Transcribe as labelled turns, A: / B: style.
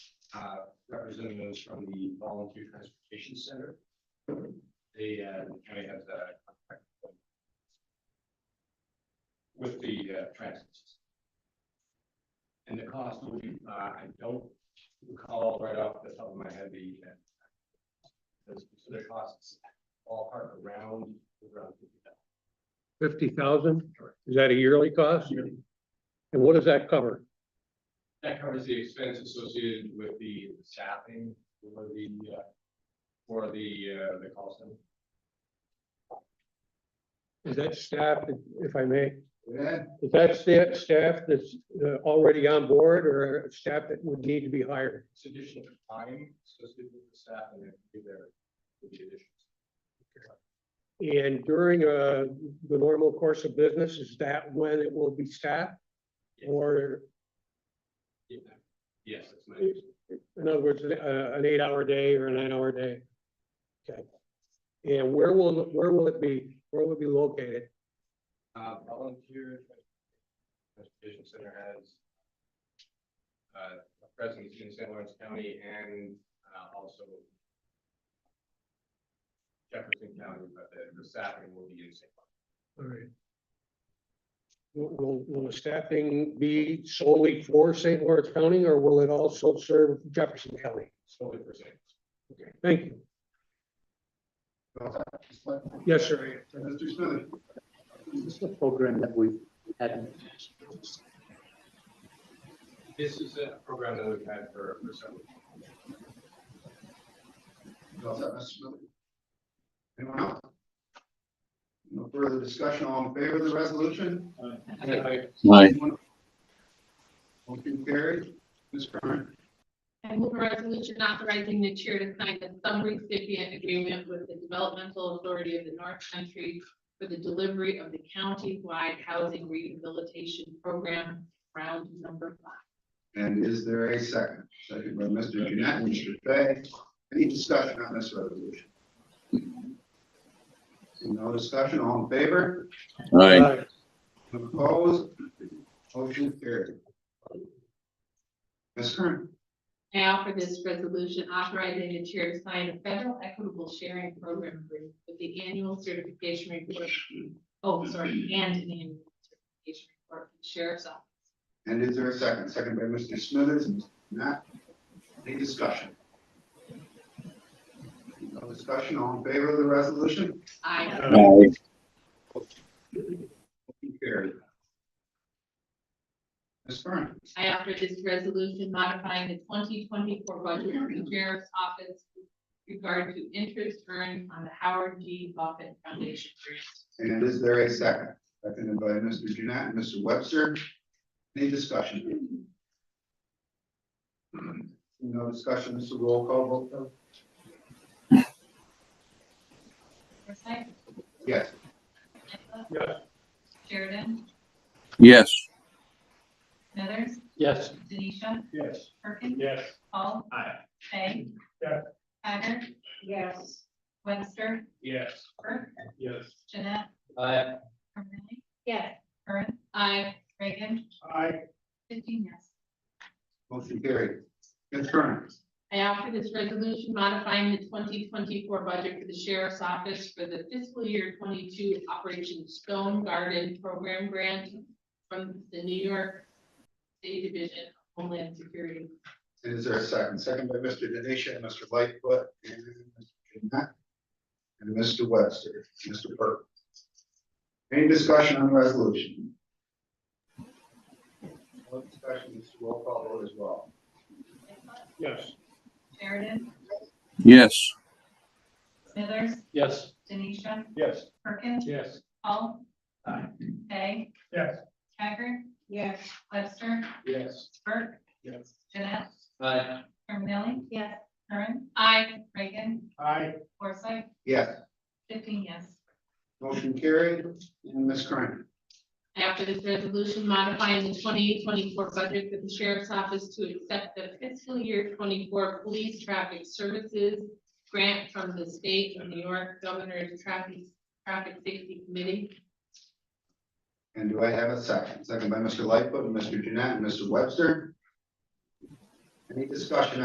A: uh, representatives from the Volunteer Transportation Center. They, uh, the county has a contract with the uh, transit. system. And the cost would be, uh, I don't recall right off the top of my head the uh, the specific costs ballpark around, around fifty thousand.
B: Fifty thousand?
A: Correct.
B: Is that a yearly cost? And what does that cover?
A: That covers the expense associated with the staffing for the, uh, for the, uh, the call center.
B: Is that staff, if I may,
A: Yeah.
B: is that staff, staff that's uh, already on board or staff that would need to be hired?
A: It's additional time associated with the staff and then do their, with the additions.
B: And during uh, the normal course of business, is that when it will be staffed? Or,
A: Yeah. Yes, that's my, understanding.
B: in other words, uh, an eight-hour day or a nine-hour day? Okay. And where will, where will it be, where will it be located?
A: uh, volunteer transportation center has uh, a presence in San Lawrence County and, uh, also Jefferson County, but the, the staffing will be in San Lawrence.
B: All right. Will, will the staffing be solely for St. Lawrence County or will it also serve Jefferson County?
A: solely for sales.
B: Thank you. Yes, sir.
C: Mr. Smith,
D: Is this a program that we've had?
A: This is a program that we've had for, for several.
C: How's that, Mr. Smith? Anyone else? No further discussion, all in favor of the resolution?
D: Aye.
C: Motion carried. Ms. Curran,
E: I move a resolution authorizing the chair to sign the sub-recipient agreement with the Developmental Authority of the North Country for the delivery of the county-wide housing rehabilitation program, round number five.
C: and is there a second? Second by Mr. Jeanette, and Mr. Fay. Any discussion on this resolution? Seeing no discussion, all in favor?
D: Aye.
B: Uh,
C: Opposed? Motion carried. Ms. Curran,
E: I offer this resolution authorizing the chair to sign a federal equitable sharing program agreement with the annual certification report. Oh, sorry, and an annual certification report from the sheriff's office.
C: and is there a second? Second by Mr. Smithers, and Mr. Jeanette. Any discussion? No discussion, all in favor of the resolution?
B: Uh,
E: I,
D: Aye.
C: Motion carried. Ms. Curran,
E: I offer this resolution modifying the twenty twenty-four budget of the sheriff's office with regard to interest earned on the Howard G. Buffett Foundation grant.
C: and is there a second? Seconded by Mr. Jeanette and Mr. Webster. Any discussion? No discussion, Mr. Roll call vote, though?
E: Forsythe,
C: Yes.
E: Nicola,
B: yeah.
E: Sheridan,
D: Yes.
E: Smithers,
B: Yes.
E: Denisha,
A: Yes.
E: Perkins,
A: Yes.
E: Paul,
A: Aye.
E: Fay.
A: Yes.
E: Hager. Yes. Webster,
A: Yes.
E: Burke,
A: Yes.
E: Jeanette,
A: Aye.
E: Curley. Yes. Curran. I, Reagan,
A: Aye.
E: fifteen yes.
C: Motion carried. Ms. Curran,
E: I offer this resolution modifying the twenty twenty-four budget for the sheriff's office for the fiscal year twenty-two Operation Stone Garden Program Grant from the New York State Division of Homeland Security.
C: and is there a second? Second by Mr. Denisha and Mr. Lightfoot and Mr. Jeanette and Mr. Webster, Mr. Burke. Any discussion on the resolution? No discussion, Mr. Roll call vote as well.
B: Yes.
E: Sheridan,
D: Yes.
E: Smithers,
B: Yes.
E: Denisha,
A: Yes.
E: Perkins,
B: Yes.
E: Paul,
A: Aye.
E: Fay,
A: Yes.
E: Hager. Yes. Webster,
A: Yes.
E: Burke,
A: Yes.
E: Jeanette,
A: Aye.
E: Curmilly. Yes. Curran. I, Reagan,
A: Aye.
E: Forsythe,
C: Yes.
E: fifteen yes.
C: Motion carried. And Ms. Curran,
E: After this resolution modifying the twenty twenty-four budget for the sheriff's office to accept the fiscal year twenty-four police traffic services grant from the state of New York Governor's Traffic, Traffic Safety Committee.
C: and do I have a second? Second by Mr. Lightfoot, and Mr. Jeanette, and Mr. Webster. Any discussion